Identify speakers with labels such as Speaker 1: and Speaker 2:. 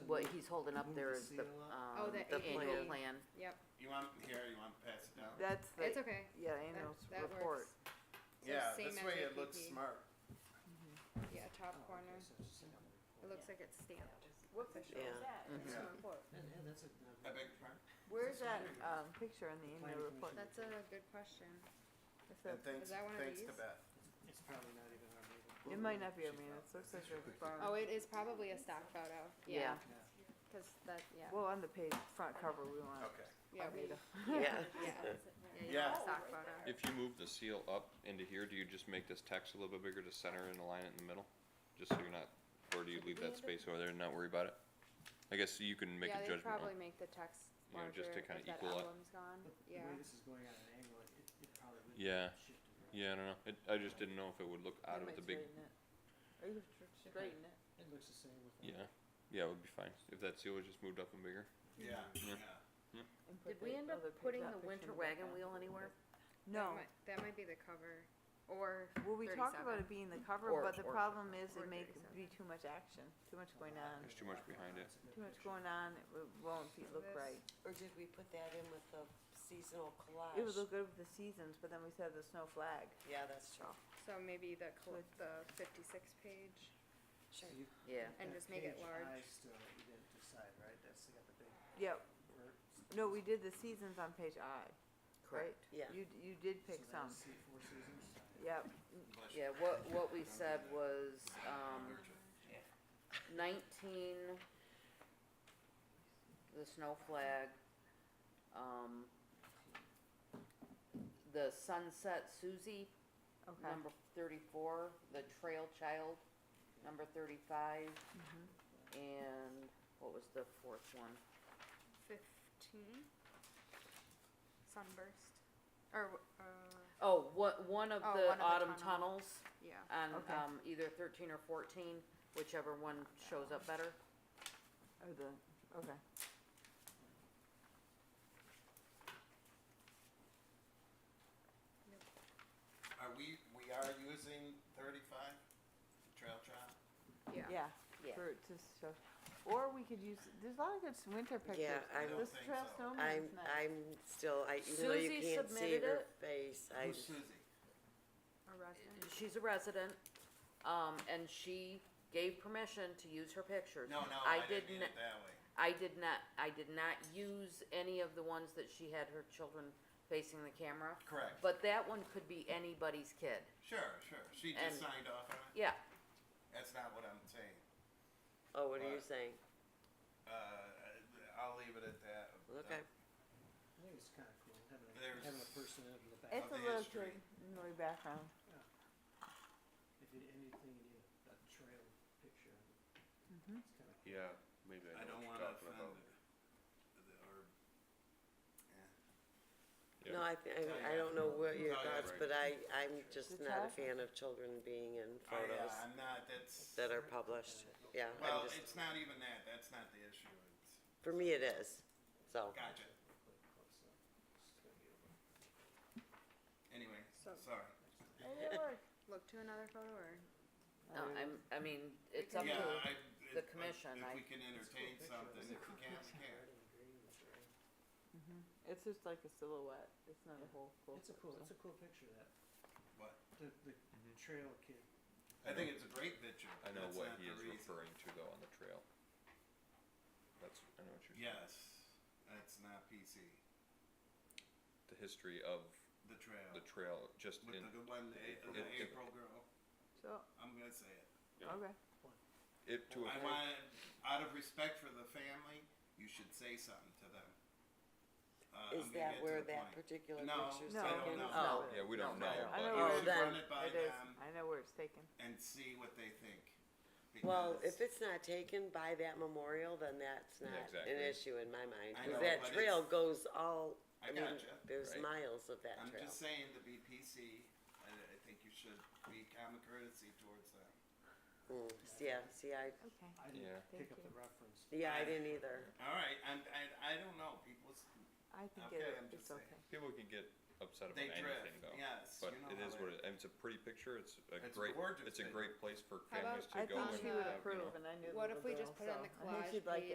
Speaker 1: he's holding up
Speaker 2: Who's
Speaker 1: there
Speaker 2: the
Speaker 1: is the,
Speaker 2: seal up?
Speaker 1: um,
Speaker 3: Oh, the
Speaker 1: the annual
Speaker 3: AAB.
Speaker 1: plan.
Speaker 3: Yep,
Speaker 4: You want here? You want to pass it down?
Speaker 5: That's the,
Speaker 3: it's okay.
Speaker 5: yeah,
Speaker 3: That-
Speaker 5: annual
Speaker 3: that
Speaker 5: report.
Speaker 3: works. So
Speaker 4: Yeah,
Speaker 3: same
Speaker 4: this
Speaker 3: as
Speaker 4: way
Speaker 3: the
Speaker 4: it looks
Speaker 3: PP.
Speaker 4: smart.
Speaker 3: Yeah, top corner. It looks
Speaker 2: Oh, Yeah.
Speaker 3: like it's stamped.
Speaker 5: What
Speaker 3: official.
Speaker 5: picture
Speaker 1: Yeah.
Speaker 5: is that?
Speaker 6: Mm-hmm.
Speaker 4: Mhm.
Speaker 5: Annual report.
Speaker 2: And, and that's a,
Speaker 4: I beg your pardon?
Speaker 5: Where's
Speaker 2: That's
Speaker 5: that,
Speaker 2: what it is.
Speaker 5: um, picture on the annual
Speaker 2: Planning
Speaker 5: report?
Speaker 2: commission.
Speaker 3: That's a good question.
Speaker 5: If
Speaker 4: And
Speaker 5: that-
Speaker 4: thanks,
Speaker 3: that one of
Speaker 4: thanks to
Speaker 3: these?
Speaker 4: Beth.
Speaker 2: it's probably not even our meeting.
Speaker 5: It might not be, I mean, it looks like a barn.
Speaker 3: Oh, it is probably a stock photo.
Speaker 1: Yeah.
Speaker 3: Yeah,
Speaker 2: Yeah.
Speaker 3: because that, yeah.
Speaker 5: Well, on the page, front cover, we
Speaker 6: Oh.
Speaker 5: want
Speaker 7: Oh.
Speaker 4: Okay.
Speaker 3: Yeah, we,
Speaker 5: Arvita.
Speaker 1: Yeah.
Speaker 3: yeah. Yeah,
Speaker 4: Yeah.
Speaker 3: yeah, stock photo.
Speaker 7: If you move the seal up into here, do you just make this text a little bit bigger to center and align it in the middle? Just so you're not, or do you leave that space over there and not worry about it? I guess you can make
Speaker 3: Yeah,
Speaker 7: a
Speaker 3: they
Speaker 7: judgment on
Speaker 3: probably
Speaker 7: it.
Speaker 3: make the text
Speaker 7: You know,
Speaker 3: larger
Speaker 7: just to
Speaker 3: if
Speaker 7: kinda
Speaker 3: that
Speaker 7: equal it.
Speaker 3: emblem's gone.
Speaker 2: But the
Speaker 3: Yeah,
Speaker 2: way this is going at an angle, it, it probably would
Speaker 7: Yeah.
Speaker 2: shift it around.
Speaker 7: Yeah, I don't know. It, I just didn't know if it would look
Speaker 5: You
Speaker 7: out of
Speaker 5: might
Speaker 7: the big,
Speaker 5: straighten it. Or you could tr- straighten it.
Speaker 2: It looks the same with.
Speaker 7: yeah. Yeah, it would be fine. If that seal was just moved up and bigger.
Speaker 4: Yeah,
Speaker 7: Yeah.
Speaker 4: yeah.
Speaker 5: and put
Speaker 1: Did we
Speaker 5: that
Speaker 1: end up
Speaker 5: other pic-
Speaker 1: putting
Speaker 5: that
Speaker 1: the
Speaker 5: picture
Speaker 1: winter
Speaker 5: back
Speaker 1: wagon
Speaker 5: on.
Speaker 1: wheel anywhere?
Speaker 5: No,
Speaker 3: That might- That might be the cover, or
Speaker 5: well, we talked about
Speaker 3: 37.
Speaker 5: it being the cover,
Speaker 1: Or-
Speaker 5: but the
Speaker 1: or-
Speaker 5: problem is
Speaker 3: or
Speaker 5: it may
Speaker 3: 37.
Speaker 5: be too much action, too much going on.
Speaker 7: There's too much behind it.
Speaker 5: Too much going on, it w- won't be, look
Speaker 3: This-
Speaker 5: right.
Speaker 6: Or did we put that in with the seasonal collage?
Speaker 5: It would look good with the seasons, but then we said the snow flag.
Speaker 6: Yeah, that's true.
Speaker 3: So maybe the, col- the fifty-six page,
Speaker 6: Sure.
Speaker 1: Yeah.
Speaker 3: And just make it large.
Speaker 2: Page I still, you didn't decide, right? That's got the big
Speaker 5: Yep,
Speaker 2: vert.
Speaker 5: no, we did the seasons on page I, right?
Speaker 1: Yeah.
Speaker 5: You, d- you did pick
Speaker 2: So that
Speaker 5: some,
Speaker 2: was se- four seasons.
Speaker 5: yep,
Speaker 4: Bless you.
Speaker 1: Yeah, what, what we said was, um, nineteen, the snow flag, um, the Sunset Susie,
Speaker 5: okay.
Speaker 1: number thirty-four, the Trail Child, number thirty-five,
Speaker 5: Mhm.
Speaker 1: and what was the fourth one?
Speaker 3: fifteen? Sunburst, or, w- uh,
Speaker 1: Oh, what, one of
Speaker 3: Oh,
Speaker 1: the
Speaker 3: one of the
Speaker 1: autumn
Speaker 3: tunnel.
Speaker 1: tunnels
Speaker 3: yeah.
Speaker 1: on,
Speaker 5: Okay.
Speaker 1: um, either thirteen or fourteen, whichever one shows up better.
Speaker 5: Or the, okay.
Speaker 4: Are we, we are using thirty-five, trail trial?
Speaker 3: Yeah.
Speaker 5: Yeah.
Speaker 1: Yeah.
Speaker 5: For, to show, or we could use, there's a lot of good s- winter pictures.
Speaker 4: I don't
Speaker 5: This
Speaker 4: think
Speaker 5: trail
Speaker 4: so.
Speaker 5: snowman
Speaker 6: I'm,
Speaker 5: is nice.
Speaker 6: I'm still, I, even though you
Speaker 1: Susie
Speaker 6: can't see
Speaker 1: submitted
Speaker 6: her
Speaker 1: it.
Speaker 6: face, I
Speaker 4: Who's
Speaker 6: just,
Speaker 4: Susie?
Speaker 3: A resident.
Speaker 1: She's a resident, um, and she gave permission to use her pictures.
Speaker 4: No, no,
Speaker 1: I
Speaker 4: I didn't mean
Speaker 1: didn't-
Speaker 4: it that way.
Speaker 1: I did not, I did not use any of the ones that she had her children facing the camera,
Speaker 4: Correct.
Speaker 1: but that one could be anybody's kid.
Speaker 4: Sure, sure. She
Speaker 1: And-
Speaker 4: just signed off on it.
Speaker 1: Yeah,
Speaker 4: That's not what I'm saying.
Speaker 6: oh, what are you
Speaker 4: Right.
Speaker 6: saying?
Speaker 4: Uh, I'll leave it at that. Uh,
Speaker 6: Okay.
Speaker 2: I think it's kinda cool, having a,
Speaker 4: There's-
Speaker 2: having a person in the back.
Speaker 5: It's
Speaker 4: the
Speaker 5: a little
Speaker 4: history.
Speaker 5: good, really background.
Speaker 2: If you, anything, you need a trail picture.
Speaker 5: Mhm.
Speaker 2: It's kinda cool.
Speaker 7: Yeah, maybe
Speaker 4: I don't want to offend the- the- or uh,
Speaker 7: Yeah.
Speaker 6: No, I, thi-
Speaker 4: Oh,
Speaker 6: I, I
Speaker 4: yeah.
Speaker 6: don't know what
Speaker 4: Oh,
Speaker 6: your
Speaker 4: yeah,
Speaker 6: thoughts,
Speaker 7: right.
Speaker 6: but I, I'm just
Speaker 5: The
Speaker 6: not
Speaker 5: child?
Speaker 6: a fan of children being in
Speaker 4: I, uh,
Speaker 6: photos
Speaker 4: I'm not, that's,
Speaker 6: that are published. Yeah,
Speaker 4: well,
Speaker 6: I'm just,
Speaker 4: it's not even that. That's not the issue. It's,
Speaker 6: for me it is, so.
Speaker 4: gotcha.
Speaker 2: Click close up. It's gonna be over.
Speaker 4: Anyway,
Speaker 3: So-
Speaker 4: sorry.
Speaker 3: Look to another photo, or?
Speaker 1: no,
Speaker 5: Oh.
Speaker 1: I'm, I mean, it's up
Speaker 3: Some
Speaker 4: Yeah,
Speaker 1: to,
Speaker 4: I,
Speaker 1: the
Speaker 4: if-
Speaker 1: commission,
Speaker 4: If
Speaker 1: I-
Speaker 4: we can
Speaker 2: It's a cool
Speaker 4: entertain
Speaker 2: picture.
Speaker 4: something,
Speaker 2: It's a
Speaker 4: if we
Speaker 2: cool
Speaker 4: can't,
Speaker 2: picture.
Speaker 4: we
Speaker 2: Red
Speaker 4: can't.
Speaker 2: and green with red.
Speaker 5: It's just like a silhouette, it's not a
Speaker 2: Yeah.
Speaker 5: whole full.
Speaker 2: It's a cool,
Speaker 5: so-
Speaker 2: it's a cool picture, that,
Speaker 4: What?
Speaker 2: the, the
Speaker 4: Mm-hmm.
Speaker 2: trail kid.
Speaker 4: I think it's a great picture.
Speaker 7: I know
Speaker 4: That's
Speaker 7: what
Speaker 4: not
Speaker 7: he
Speaker 4: the
Speaker 7: is
Speaker 4: reason.
Speaker 7: referring to though on the trail. That's, I know what you're saying.
Speaker 4: Yes, that's not PC.
Speaker 7: The history of
Speaker 4: The trail.
Speaker 7: the trail, just
Speaker 4: With
Speaker 7: in,
Speaker 4: the good one, the,
Speaker 7: it-
Speaker 4: the
Speaker 7: it-
Speaker 4: April girl.
Speaker 5: So,
Speaker 4: I'm gonna say it.
Speaker 7: Yeah.
Speaker 5: okay,
Speaker 7: it to
Speaker 4: I
Speaker 7: a
Speaker 4: want, out of respect for the family, you should say something to them. Uh,
Speaker 6: Is
Speaker 4: I'm gonna get
Speaker 6: that
Speaker 4: to
Speaker 6: where
Speaker 4: the
Speaker 6: that
Speaker 4: point.
Speaker 6: particular
Speaker 4: No,
Speaker 6: picture's
Speaker 5: no,
Speaker 4: I don't
Speaker 6: taken?
Speaker 4: know.
Speaker 6: Oh,
Speaker 7: Yeah, we don't
Speaker 5: No,
Speaker 7: know.
Speaker 5: no, I
Speaker 7: but-
Speaker 5: know
Speaker 6: Oh,
Speaker 5: where
Speaker 4: You
Speaker 5: it
Speaker 4: should
Speaker 6: then
Speaker 4: run it by
Speaker 5: it is,
Speaker 4: them
Speaker 5: I know where it's taken.
Speaker 4: and see what they think.
Speaker 6: Well,
Speaker 4: because-
Speaker 6: if it's not taken by that memorial, then that's
Speaker 7: Yeah,
Speaker 6: not
Speaker 7: exactly.
Speaker 6: an issue in my mind,
Speaker 4: I
Speaker 6: cause
Speaker 4: know,
Speaker 6: that
Speaker 4: but it's-
Speaker 6: trail goes all,
Speaker 4: I
Speaker 6: I mean,
Speaker 4: gotcha.
Speaker 6: there's
Speaker 7: Right.
Speaker 6: miles of that
Speaker 4: I'm
Speaker 6: trail.
Speaker 4: just saying the BPC, I, I think you should be common courtesy towards them.
Speaker 6: Mm, Yeah, see, I,
Speaker 5: Okay.
Speaker 2: I
Speaker 7: Yeah.
Speaker 2: didn't pick
Speaker 5: Thank
Speaker 2: up the reference.
Speaker 6: yeah, I didn't either.
Speaker 4: All right, and, and I don't know, people, s-
Speaker 5: I think
Speaker 4: Okay,
Speaker 5: it,
Speaker 4: I'm just
Speaker 5: it's
Speaker 4: saying.
Speaker 5: okay.
Speaker 7: People can get upset about
Speaker 4: they
Speaker 7: anything
Speaker 4: drift,
Speaker 7: though.
Speaker 4: yes,
Speaker 7: But
Speaker 4: you know
Speaker 7: it
Speaker 4: how
Speaker 7: is
Speaker 4: that-
Speaker 7: what it, and it's a pretty picture, it's a
Speaker 4: It's
Speaker 7: great,
Speaker 4: gorgeous
Speaker 7: it's a
Speaker 4: picture.
Speaker 7: great place for
Speaker 3: How about
Speaker 7: families to
Speaker 5: I
Speaker 7: go
Speaker 5: think she
Speaker 7: and
Speaker 3: on
Speaker 5: would
Speaker 7: have, you know,
Speaker 5: approve, and I knew the
Speaker 3: What
Speaker 5: little
Speaker 3: if we just put
Speaker 5: girl,
Speaker 3: it on
Speaker 5: so
Speaker 3: the
Speaker 5: I think she'd
Speaker 3: collage
Speaker 5: like